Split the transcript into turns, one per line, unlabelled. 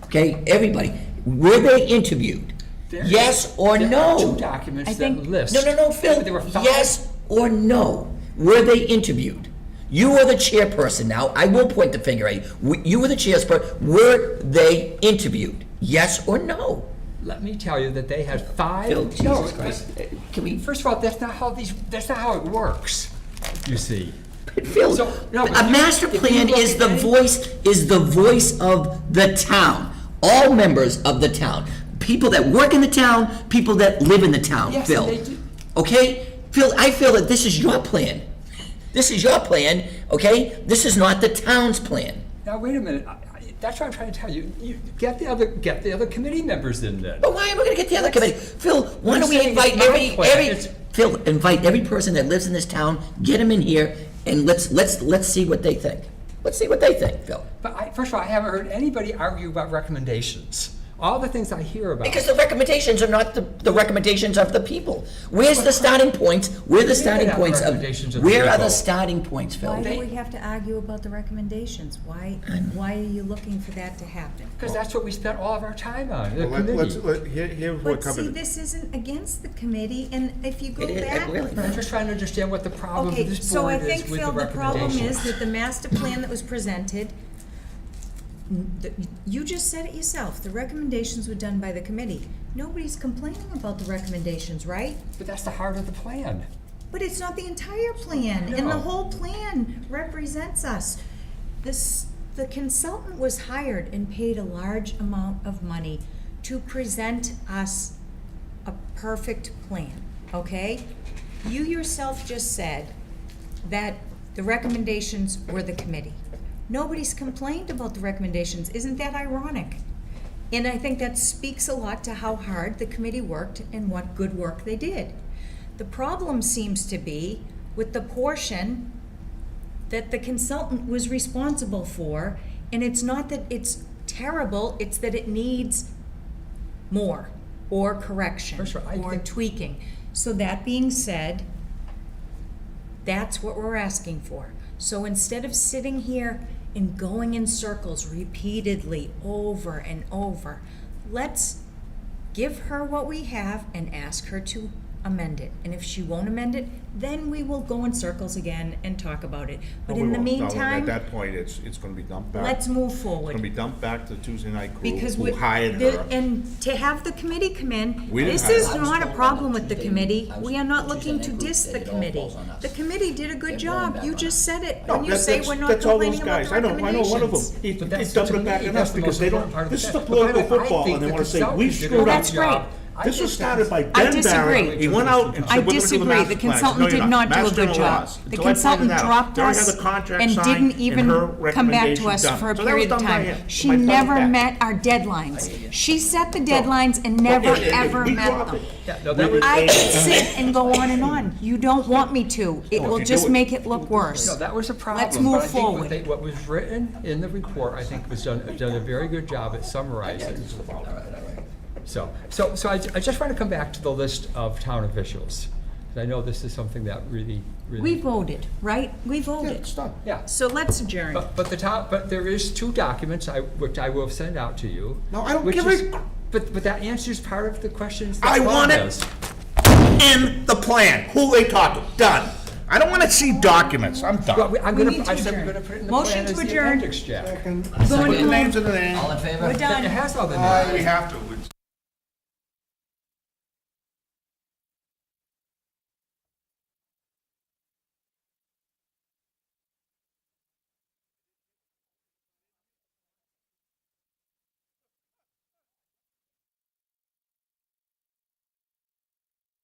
okay, everybody, were they interviewed?
There-
Yes or
there are
no?
two documents
I
that
think-
list.
No, no, no, Phil,
There were five.
yes or no? Were they interviewed? You are the chairperson now, I will point the finger at you. W- You were the chairperson, were they interviewed? Yes or no?
Let me tell you that they had five.
Phil,
No,
Jesus
it-
Christ.
Can we, first of all, that's not how these, that's not how it works, you see.
Phil,
So, no,
a
if you-
master
if you
plan
look
is
at
the
any-
voice, is the voice of the town, all members of the town. People that work in the town, people that live in the town,
Yes,
Phil.
they do.
Okay? Phil, I feel that this is your plan. This is your plan, okay? This is not the town's plan.
Now, wait a minute, I- I- that's what I'm trying to tell you. You, get the other, get the other committee members in then.
But why am I gonna get the other committee? Phil, why
I'm
don't we
saying it's
invite
my
every,
plan.
every,
It's-
Phil, invite every person that lives in this town, get them in here, and let's, let's, let's see what they think. Let's see what they think, Phil.
But I, first of all, I haven't heard anybody argue about recommendations. All the things I hear about.
Because the recommendations are not the, the recommendations of the people. Where's the starting points? Where are the starting
not the
points of,
recommendations of the
where are the
people.
starting points,
Why
Phil?
do we have to argue about the recommendations? Why, why are you looking for that to happen?
Because that's what we spent all of our time on, the
Well, let- Let's,
committee.
let, here, here's what
But see,
covered,
this isn't against the committee, and if you go
It is- it
back.
really-
I'm just trying to understand what the problem
Okay,
with this
so I
board
think,
is with the
Phil, the problem is
recommendations.
that the master plan that was presented, n- the- you just said it yourself, the recommendations were done by the committee. Nobody's complaining about the recommendations, right?
But that's the heart of the plan.
But it's not the entire plan, and
No.
the whole plan represents us. This, the consultant was hired and paid a large amount of money to present us a perfect plan, okay? You yourself just said that the recommendations were the committee. Nobody's complained about the recommendations, isn't that ironic? And I think that speaks a lot to how hard the committee worked and what good work they did. The problem seems to be with the portion that the consultant was responsible for, and it's not that it's terrible, it's that it needs more or correction
First of all, I
or
think-
tweaking. So that being said, that's what we're asking for. So instead of sitting here and going in circles repeatedly over and over, let's give her what we have and ask her to amend it. And if she won't amend it, then we will go in circles again and talk about it. But
No, we
in the
won't. No, At
meantime,
that point, it's, it's gonna be dumped back.
let's move forward.
It's gonna be dumped back to Tuesday night crew
Because
who
we,
hired
the-
her.
and to have the committee come in,
We didn't
this
hire
is
them.
not a problem with the
Tuesday,
committee.
I was
We are not
told
looking
Tuesday
to
night group
diss
that
the
it all
committee.
falls on us.
The committee did a
They're
good
blowing
job.
back
You
on
just
us.
said it
No,
when you
that-
say
that's-
we're not
that's all those
complaining about
guys.
the
I know, I know
recommendations.
one of them. He, he
But that's-
dumped
to
it back
me,
on
that's
us
the
because
most
they don't,
important part of
this
the
is the
plan. But by the
political
way, I
football
think
and they
the
wanna say,
consultant
we
did a
screwed
good
up.
That's right.
job. I
This
think
was started by
that's-
I
Ben Barrett.
disagree.
He went out and
I
said, we're gonna do the
disagree.
master
The
plan. I said,
consultant
"No, you're
did
not.
not do a
Master
good
plan
job.
was."
The
Until I pointed
consultant
it out.
dropped
They already
us
had the contract
and
signed
didn't
and
even
her
come back to
recommendation
us
done.
for a
So that was
period of
done by
time.
him,
She
by Tony
never
Beck.
met our deadlines. She set the deadlines and never,
If- if- if
ever
we
met
drop
them.
it,
Yeah, no, that
we-
was-
I could sit and go on and on. You don't want me to. It
No, if
will
you do
just
it-
make it look worse.
No, that was a problem.
Let's move
but I think what
forward.
they- What was written in the report, I think, was done, done a very good job at summarizing. So, so, so I, I just want to come back to the list of town officials. 'cause I know this is something that really,
We
really,
voted, right? We
Yeah,
voted.
it's done.
yeah.
So let's adjourn.
But, but the town, but there is two documents, I, which I will send out to you.
No, I don't
which
give
is-
a cr-
But, but that answers part of the questions that
I
Bob
want it
has.
in the plan, who they talked to, done. I don't wanna see documents, I'm
Well,
done.
we- I'm
We
gonna,
need to
I said we're
adjourn.
gonna put it in the
Motion
plan
to
as the
adjourn.
appendix, Jack.
Put the names in the name.
All in favor?
We're
It
done.
has all the
Uh,
names.
We have to.